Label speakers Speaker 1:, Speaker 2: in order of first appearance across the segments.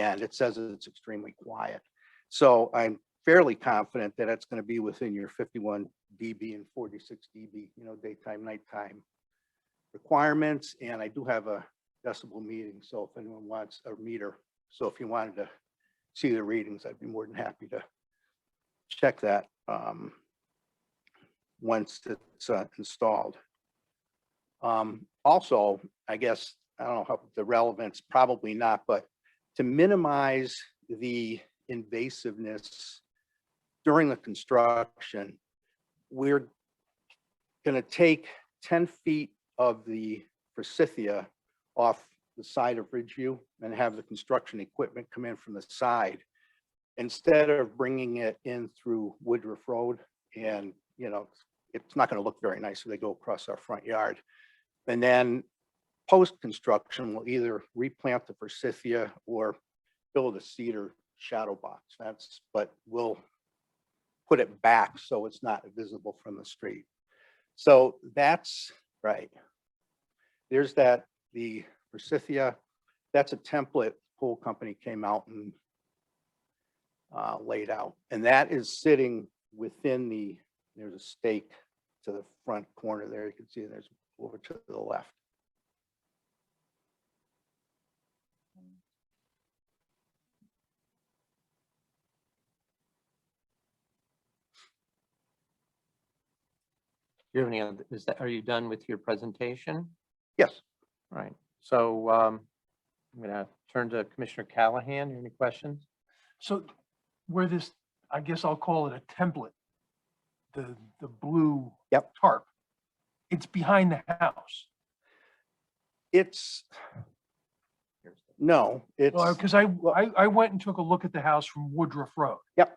Speaker 1: and it says it's extremely quiet. So I'm fairly confident that it's going to be within your fifty-one dB and forty-six dB, you know, daytime, nighttime requirements, and I do have a decibel meeting, so if anyone wants a meter, so if you wanted to see the readings, I'd be more than happy to check that um, once it's uh, installed. Um, Also, I guess, I don't know how the relevance, probably not, but to minimize the invasiveness during the construction, we're going to take 10 feet of the forsythia off the side of Ridgeview and have the construction equipment come in from the side instead of bringing it in through Woodruff Road and, you know, it's not going to look very nice if they go across our front yard. And then post-construction, we'll either replant the forsythia or build a cedar shadow box. That's, but we'll put it back so it's not visible from the street. So that's right. There's that, the forsythia, that's a template pool company came out and uh, laid out, and that is sitting within the, there's a stake to the front corner there. You can see there's over to the left.
Speaker 2: Do you have any other, is that, are you done with your presentation?
Speaker 1: Yes.
Speaker 2: All Right, so um, I'm gonna turn to Commissioner Callahan. Any questions?
Speaker 3: So where this, I guess I'll call it a template, the, the blue
Speaker 1: Yep.
Speaker 3: tarp, it's behind the house.
Speaker 1: It's, no, it's,
Speaker 3: Because Uh, I, I, I went and took a look at the house from Woodruff Road.
Speaker 1: Yep.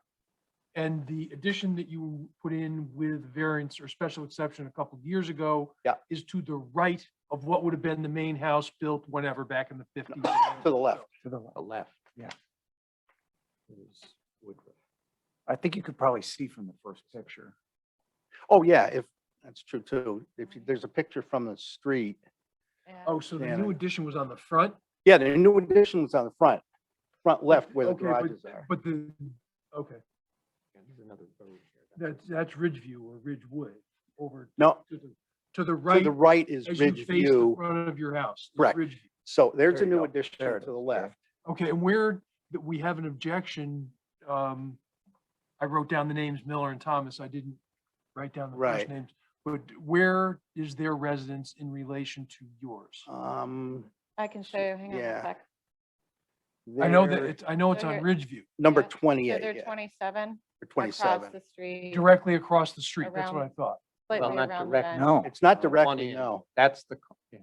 Speaker 3: And the addition that you put in with variance or special exception a couple of years ago
Speaker 1: Yep.
Speaker 3: is to the right of what would have been the main house built whenever back in the fifties.
Speaker 1: to the left.
Speaker 4: to the,
Speaker 2: The left.
Speaker 4: Yeah.
Speaker 2: is Woodruff.
Speaker 4: I think you could probably see from the first picture.
Speaker 1: Oh, yeah, if, that's true too. If you- there's a picture from the street.
Speaker 3: Oh, so the
Speaker 1: Yeah.
Speaker 3: new addition was on the front,
Speaker 1: Yeah, the new addition was on the front, front left where the
Speaker 3: Okay, but-
Speaker 1: garages are.
Speaker 3: but the, okay,
Speaker 2: Yeah, there's another road here.
Speaker 3: that's, that's Ridgeview or Ridgewood over
Speaker 1: No,
Speaker 3: to the, to the
Speaker 1: to
Speaker 3: right.
Speaker 1: the right is
Speaker 3: As you face the
Speaker 1: Ridgeview.
Speaker 3: front of your house. the
Speaker 1: Correct.
Speaker 3: ridge view.
Speaker 1: So there's a
Speaker 2: There you
Speaker 1: new
Speaker 2: go.
Speaker 1: addition
Speaker 2: There
Speaker 1: to
Speaker 2: it
Speaker 1: the
Speaker 2: is, yeah.
Speaker 1: left.
Speaker 3: Okay, and where, that we have an objection, um, I wrote down the names Miller and Thomas, I didn't write down the
Speaker 1: Right.
Speaker 3: first names. But where is their residence in relation to yours?
Speaker 1: Um,
Speaker 5: I can
Speaker 1: So-
Speaker 5: show you, hang on
Speaker 1: yeah.
Speaker 5: a sec.
Speaker 3: I know that
Speaker 1: they're
Speaker 3: it's, I know it's on
Speaker 5: they're-
Speaker 3: Ridgeview,
Speaker 1: Number
Speaker 5: yeah, so So
Speaker 1: twenty-eight,
Speaker 5: they're
Speaker 1: yeah,
Speaker 5: twenty-seven
Speaker 1: or
Speaker 5: across
Speaker 1: twenty-seven.
Speaker 5: the street,
Speaker 3: directly across the street, that's what I
Speaker 5: Around-
Speaker 3: thought.
Speaker 2: Well,
Speaker 5: slightly
Speaker 2: not
Speaker 5: around the
Speaker 2: direct-
Speaker 5: bend.
Speaker 4: No,
Speaker 1: It's not
Speaker 2: Uh,
Speaker 1: directly,
Speaker 2: 20.
Speaker 1: no.
Speaker 2: That's the, co- yeah.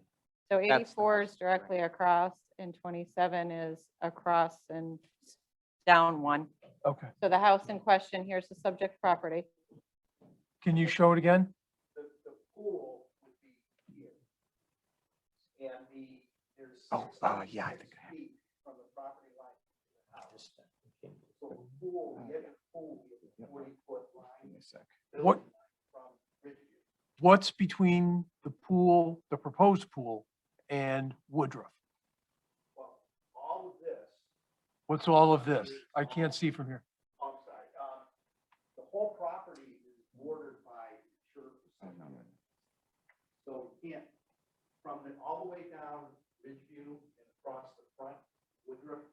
Speaker 5: So
Speaker 2: the
Speaker 5: eighty-four is
Speaker 2: house direct.
Speaker 5: directly across and twenty-seven is across and down one.
Speaker 3: Okay,
Speaker 5: So the house in question, here's the subject property.
Speaker 3: can you show it again?
Speaker 6: the, the pool would be here. And the, there's.
Speaker 4: Oh, uh, yeah, I
Speaker 6: 66
Speaker 4: think I have.
Speaker 6: feet From the property line to the house.
Speaker 3: uh,
Speaker 2: Just that. Okay.
Speaker 6: So the pool, the other pool, we have
Speaker 4: Yep.
Speaker 6: a forty foot
Speaker 4: Give me
Speaker 6: line.
Speaker 4: a sec.
Speaker 6: building
Speaker 3: What-
Speaker 6: line From Ridgeview.
Speaker 3: What's between the pool, the proposed pool and Woodruff?
Speaker 6: Well, all of this,
Speaker 3: What's all of this? I can't see from here.
Speaker 6: I'm sorry, um, the whole property is bordered by church.
Speaker 4: I don't know.
Speaker 6: So we can't, from the, all the way down Ridgeview and across the front, Woodruff,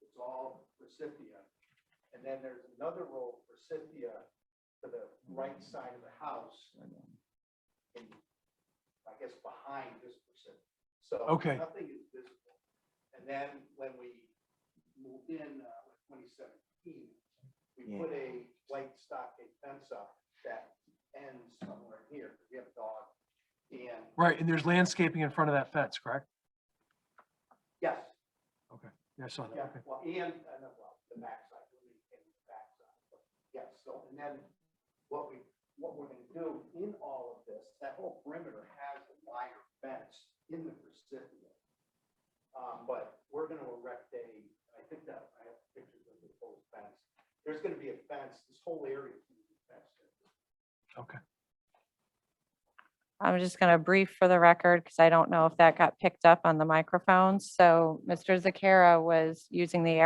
Speaker 6: it's all Precipia. And then there's another row of Precipia to the right side of the house
Speaker 4: I don't-
Speaker 6: and I guess behind this Precipia. So.
Speaker 3: Okay.
Speaker 6: Nothing is visible. And then when we moved in, uh, with twenty seventeen, we
Speaker 4: Yeah.
Speaker 6: put a white stockade fence up that ends somewhere here. We have dog and
Speaker 3: Right, and there's landscaping in front of that fence, correct?
Speaker 6: Yes,
Speaker 3: Yeah, I saw that,
Speaker 6: yeah,
Speaker 3: okay.
Speaker 6: well, and, uh, no, well, the backside, we maintain the backside, but, yes, so, and then what we, what we're gonna do in all of this, that whole perimeter has a wire fence in the recipient. Um, but we're gonna erect a, I think that, I have pictures of the whole fence, there's gonna be a fence, this whole area is gonna be fenced in.
Speaker 5: I'm just going to brief for the record because I don't know if that got picked up on the microphones. So Mr. Zakara was using the